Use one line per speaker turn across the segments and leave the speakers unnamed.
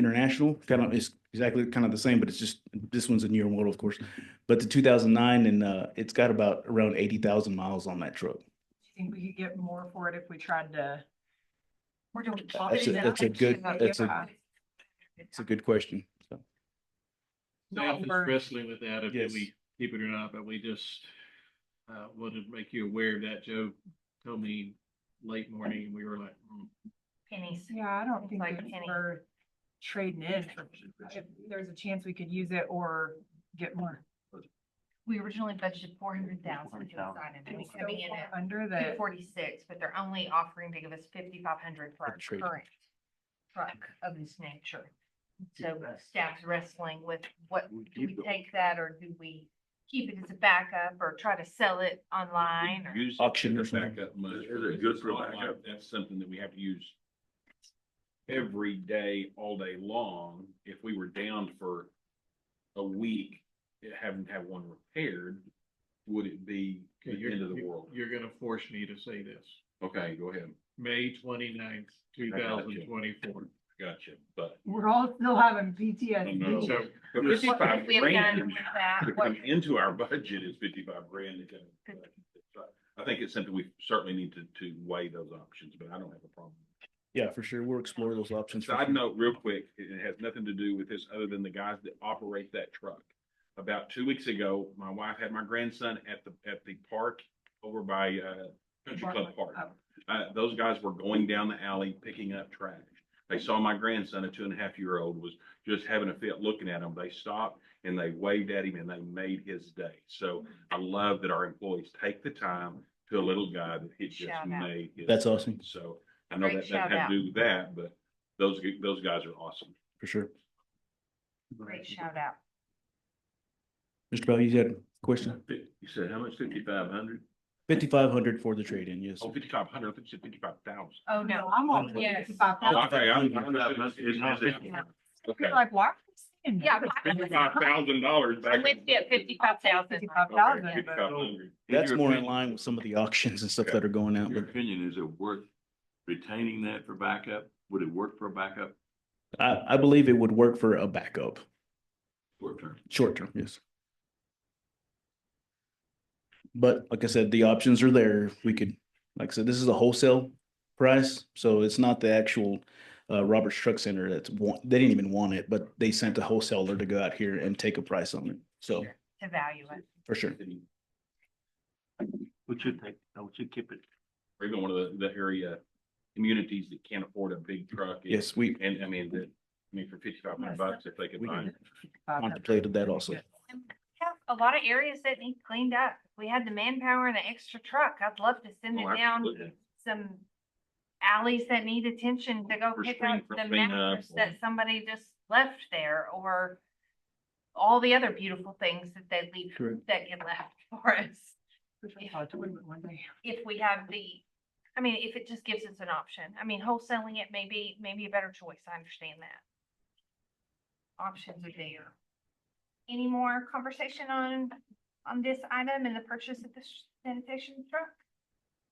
International, kind of, it's exactly kind of the same, but it's just, this one's a newer model, of course. But the two thousand nine and, uh, it's got about around eighty thousand miles on that truck.
think we could get more for it if we tried to? We're doing.
That's a- that's a good- that's a- It's a good question. So,
Not
Staff is
worth-
wrestling with that, if
Yes.
we keep it or not, but we just, uh, wanted to make you aware of that. Joe told me late morning, and we were like, mm,
pennies.
Yeah, I don't think
Like
it's
penny.
worth trading in. for- If there's a chance we could use it or get more.
We originally budgeted four hundred thousand to
400,000.
assign it, and
It's
it's
so
coming in
far
at
Under
two
the,
forty-six, but they're only offering to give us fifty-five hundred for our
For trade.
current truck of this nature. So uh, staff's wrestling with what,
We
do we
keep it.
take that or do we keep it as a backup or try to sell it online or?
Use
Auction or
the
something.
backup money.
Is it
because
good
it's
for
not like
backup?
That's something that we have to use every day, all day long. If we were down for a week, eh, having to have one repaired, would it be the
okay, you're,
end of the
you-
world?
you're gonna force me to say this.
Okay, go ahead.
May twenty-ninth, two thousand twenty-four.
Gotcha, but
we're all still having
No.
PTSD.
So,
but
What-
fifty-five
We have done
grand
with that,
to
what,
come into our budget is fifty-five grand. to come into the budget. So I think it's something we certainly need to, to weigh those options, but I don't have a problem.
yeah, for sure. We'll explore those options. for
Side
sure.
note, real quick, it it has nothing to do with this other than the guys that operate that truck. About two weeks ago, my wife had my grandson at the, at the park over by, uh, Country Club Park.
Oh.
oh,
Uh, those guys were going down the alley picking up trash. They saw my grandson, a two and a half year old, was just having a fit looking at him. They stopped and they waved at him and they made his day. So I love that our employees take the time to a little guy that it just
Shout out.
made. his
That's
day.
awesome.
So I know that
Great
doesn't have
shout-out.
to do with that, but those, gu- those guys are awesome.
For sure.
great shout out.
Mr. Bell, you had a question?
You said how much, fifty-five hundred?
Fifty-five hundred for the trade-in, yes.
Oh, fifty-five hundred, I think you said fifty-five thousand.
Oh,
No,
no,
I'm on
Yes.
fifty-five
Okay,
thousand.
I'm- I'm not-
It's not fifty.
Okay.
Like, why? are we saying
yeah.
that?
Fifty-five thousand dollars back.
I'm with you at fifty-five thousand.
Fifty-five thousand, but
Fifty-five hundred.
That's more in line with some of the auctions and stuff that are going out,
Your
but
opinion, is it worth retaining that for backup? Would it work for backup?
I, I believe it would work for a backup,
Short term.
short term, yes. But like I said, the options are there. We could, like I said, this is a wholesale price, so it's not the actual uh, Roberts Truck Center that's want, they didn't even want it, but they sent a wholesaler to go out here and take a price on it. So,
To value it.
for sure.
Would you take, would you keep it?
Or even one of the, the area communities that can't afford a big truck. and-
Yes, we
And I mean, that, I mean, for fifty-five hundred bucks, if they could
We
find.
contemplated that also.
have a lot of areas that need cleaned up. If We had the manpower and an extra truck. I'd love to send
Oh,
it down
absolutely.
some alleys that need attention to go
For
pick
screen-
up
for
the
cleanup
mattress
or-
that somebody just left there or all the other beautiful things that they leave,
Correct.
that get left for us.
one day.
If we have the, I mean, if it just gives us an option. I mean, wholesaling it may be, may be a better choice. I understand that. Options are there. Any more conversation on, on this item and the purchase of this sanitation truck?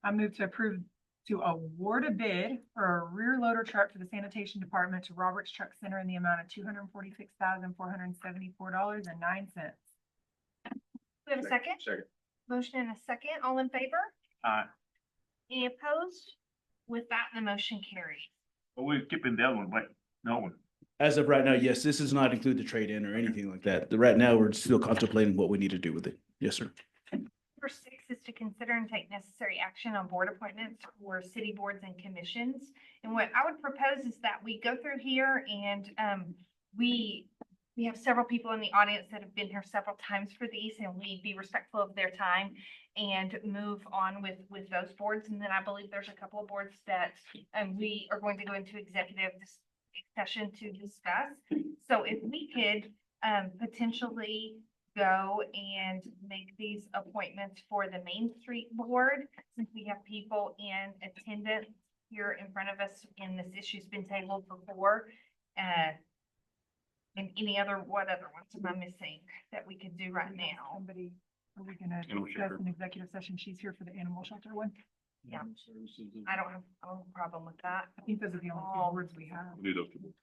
I move to approve to award a bid for a rear loader truck for the sanitation department to Roberts Truck Center in the amount of two hundred and forty-six thousand, four hundred and seventy-four dollars and nine cents.
We have a second?
Second.
Motion and a second. All in favor?
Aye.
Any opposed? With that, the motion carries.
Well, we're keeping that one, but no one.
As of right now, yes, this does not include the trade-in or anything like that. The- Right now, we're still contemplating what we need to do with it. Yes, sir.
Number six is to consider and take necessary action on board appointments for city boards and commissions. And what I would propose is that we go through here and um, we, we have several people in the audience that have been here several times for these and we be respectful of their time and move on with, with those boards. And then I believe there's a couple of boards that um, we are going to go into executive dis- session to discuss. So if we could um, potentially go and make these appointments for the Main Street Board, since we have people in attendance here in front of us, and this issue's been tabled before. Uh, and any other, what other ones am I missing that we could do right now?
Somebody, are we gonna
Animal
discuss
shelter.
an executive session? She's here for the animal shelter one.
Mm-hmm.
Yeah. I don't have, I don't have a problem with that.
I think those are the only two
Oh.
words we have.
Do those two.